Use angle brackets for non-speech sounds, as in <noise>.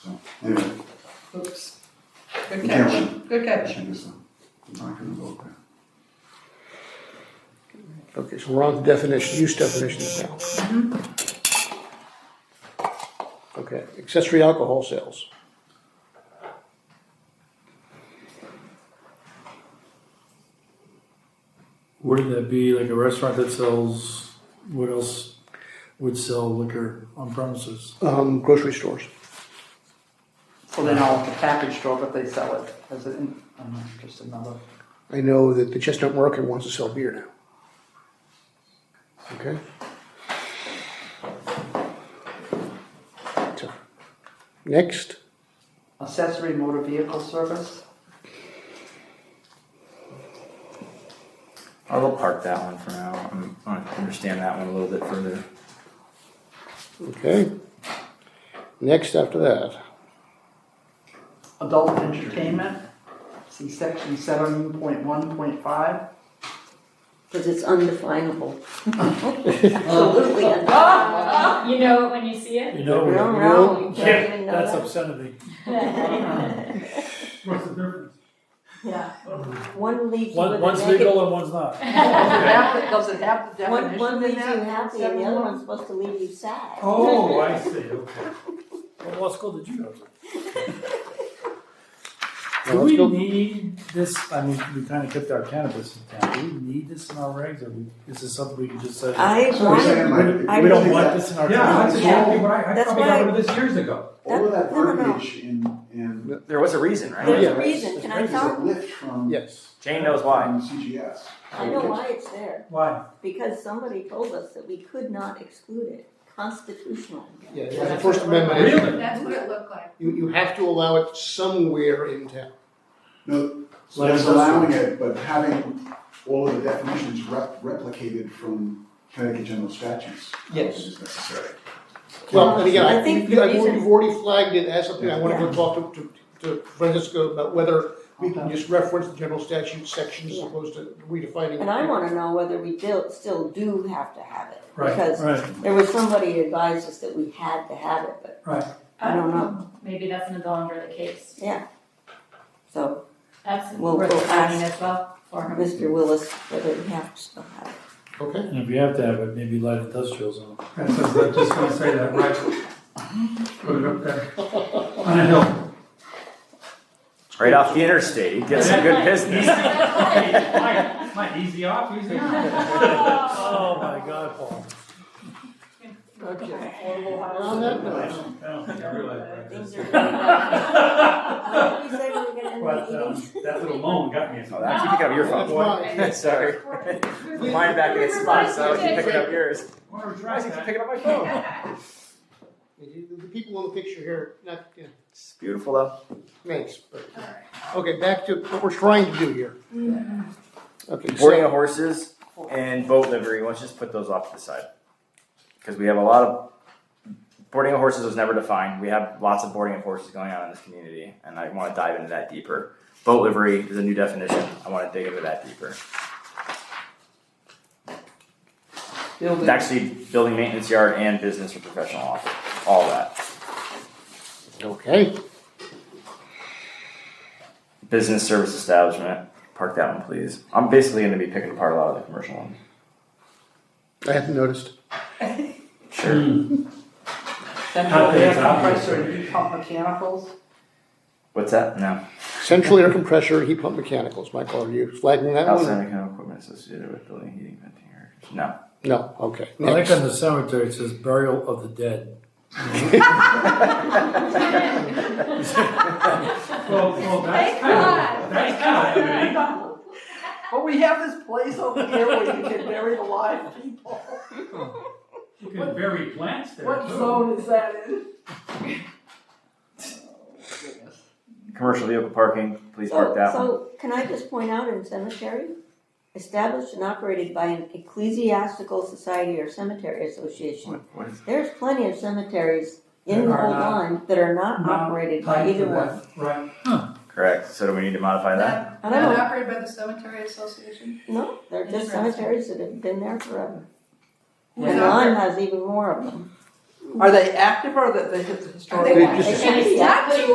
So, anyway, Oops. Good You can't catch, good I catch. should just, uh, I'm not gonna vote there. Okay, so we're on to definition, use definitions now. Okay, accessory alcohol sales. Wouldn't that be like a restaurant that sells, what else would sell liquor on premises? Um, grocery stores. So then all the package store, but they sell it as an, I'm not just another. I know that the Chestnut Market wants to sell beer now. Okay? So, Next, Accessory motor vehicle service, I'll park that one for now. I'm, I understand that one a little bit further. okay? Next after that, adult entertainment, see section seven point one point five. <laughs> Because it's undefinable. Absolutely Oh, undefinable. You know it when you see <laughs> it? You No, know, no, you don't yeah, even know that's that. obscenity. What's the difference? Yeah. One leaves you with One, a one's negative. legal and one's not. Does it have the One, definition in one leaves you that? happy and the other one's supposed to leave you sad. Oh, I see, okay. What law school did you go to? <laughs> Now, Do let's we go- need this, I mean, we kinda kept our cannabis in town, do we need this in our regs, or we- is this something we can just say? I So you're want, saying like, We we don't think want that this in our Yeah, that's town. exactly what I, I That's probably why I- got rid of this years ago. all of that No, no, no. verbiage in, in. There was a reason, Oh, right? there's Yeah. a reason, can I is tell? a lift from. yes, Jane knows why. from CGS. I know why it's there, Why? because somebody told us that we could not exclude it, constitutional. yeah, it's the First Amendment. issue. Really? That's what it looked like. You, you have to allow it somewhere in town. No, so Like that's this one. allowing it, but having all of the definitions rep- replicated from Connecticut general statutes. I don't think Yes. Is necessary. Well, and again, I I think think the you've reason- already flagged it as something, I wanna go Yeah. talk to, to, to Francisco about whether we can Okay. just reference the general statute section as Yeah. opposed to redefining. And I wanna know whether we do, still do have to have it. Right, Because right. there was somebody who advised us that we had to have it, but I don't know. Maybe that's no longer the case. So That's Well, worth we'll finding as well for him. Mr. Willis, whether we have to still have it. Okay, And if you have to have it, maybe light industrial zone. I was just gonna say that, right? Put it <laughs> up there. On a <laughs> hill. Right off the interstate, get some good business. <laughs> Mike, Mike, easy off, easy <laughs> Oh my God, Paul. Okay. Affordable on housing. that note, I don't think I realized Things that. are going up. When did we say we were gonna end But, the um, meeting? that little loan got me. Oh, that's you pick up your that's phone. fine. <laughs> Sorry. Mine back in its spot, so I was picking <laughs> up yours. Wanna Why drive is it that? picking up my phone? The the people in the picture here, not, yeah, It's beautiful though. thanks, but, okay, back to what we're trying to do here. Mm-hmm. Okay, Boarding so, of horses and boat livery, let's just put those off to the side. Because we have a lot of, boarding of horses was never defined, we have lots of boarding of horses going on in this community, and I wanna dive into that deeper. Boat livery is a new definition, I wanna dig into that deeper. It's Building, actually building maintenance yard and business or professional office, all that. okay, Business service establishment, park that one please. I'm basically gonna be picking apart a lot of the commercial ones. I hadn't noticed. Hmm. Not central that air it's obvious, compressor and heat pump mechanicals. What's that? No, Central air compressor, heat pump mechanicals, Michael, are you flagging that outside one? mechanical equipment associated with building, heating, venting, air. No, No, okay, I next. like on the cemetery, it says burial of the dead. Well, well, that's Thank kind of, God. that's kind of unique. <laughs> But we have this place over here where you can bury the live people. <laughs> You can bury plants there What too. zone is that in? Goodness. commercial vehicle parking, please So, park that one. so can I just point out in cemetery, established and operated by an ecclesiastical society or cemetery association. What, what is There's plenty of cemeteries in the That are whole not- line that are not Not operated by tied to either one. that, Right, correct? So do we need to modify that? I don't know, operated by the cemetery association? no, they're just Interesting. cemeteries that have been there forever. Yeah. And Lime has even more of them. Are they active or are they, they hit the historical? They ones? just- <laughs> And it's not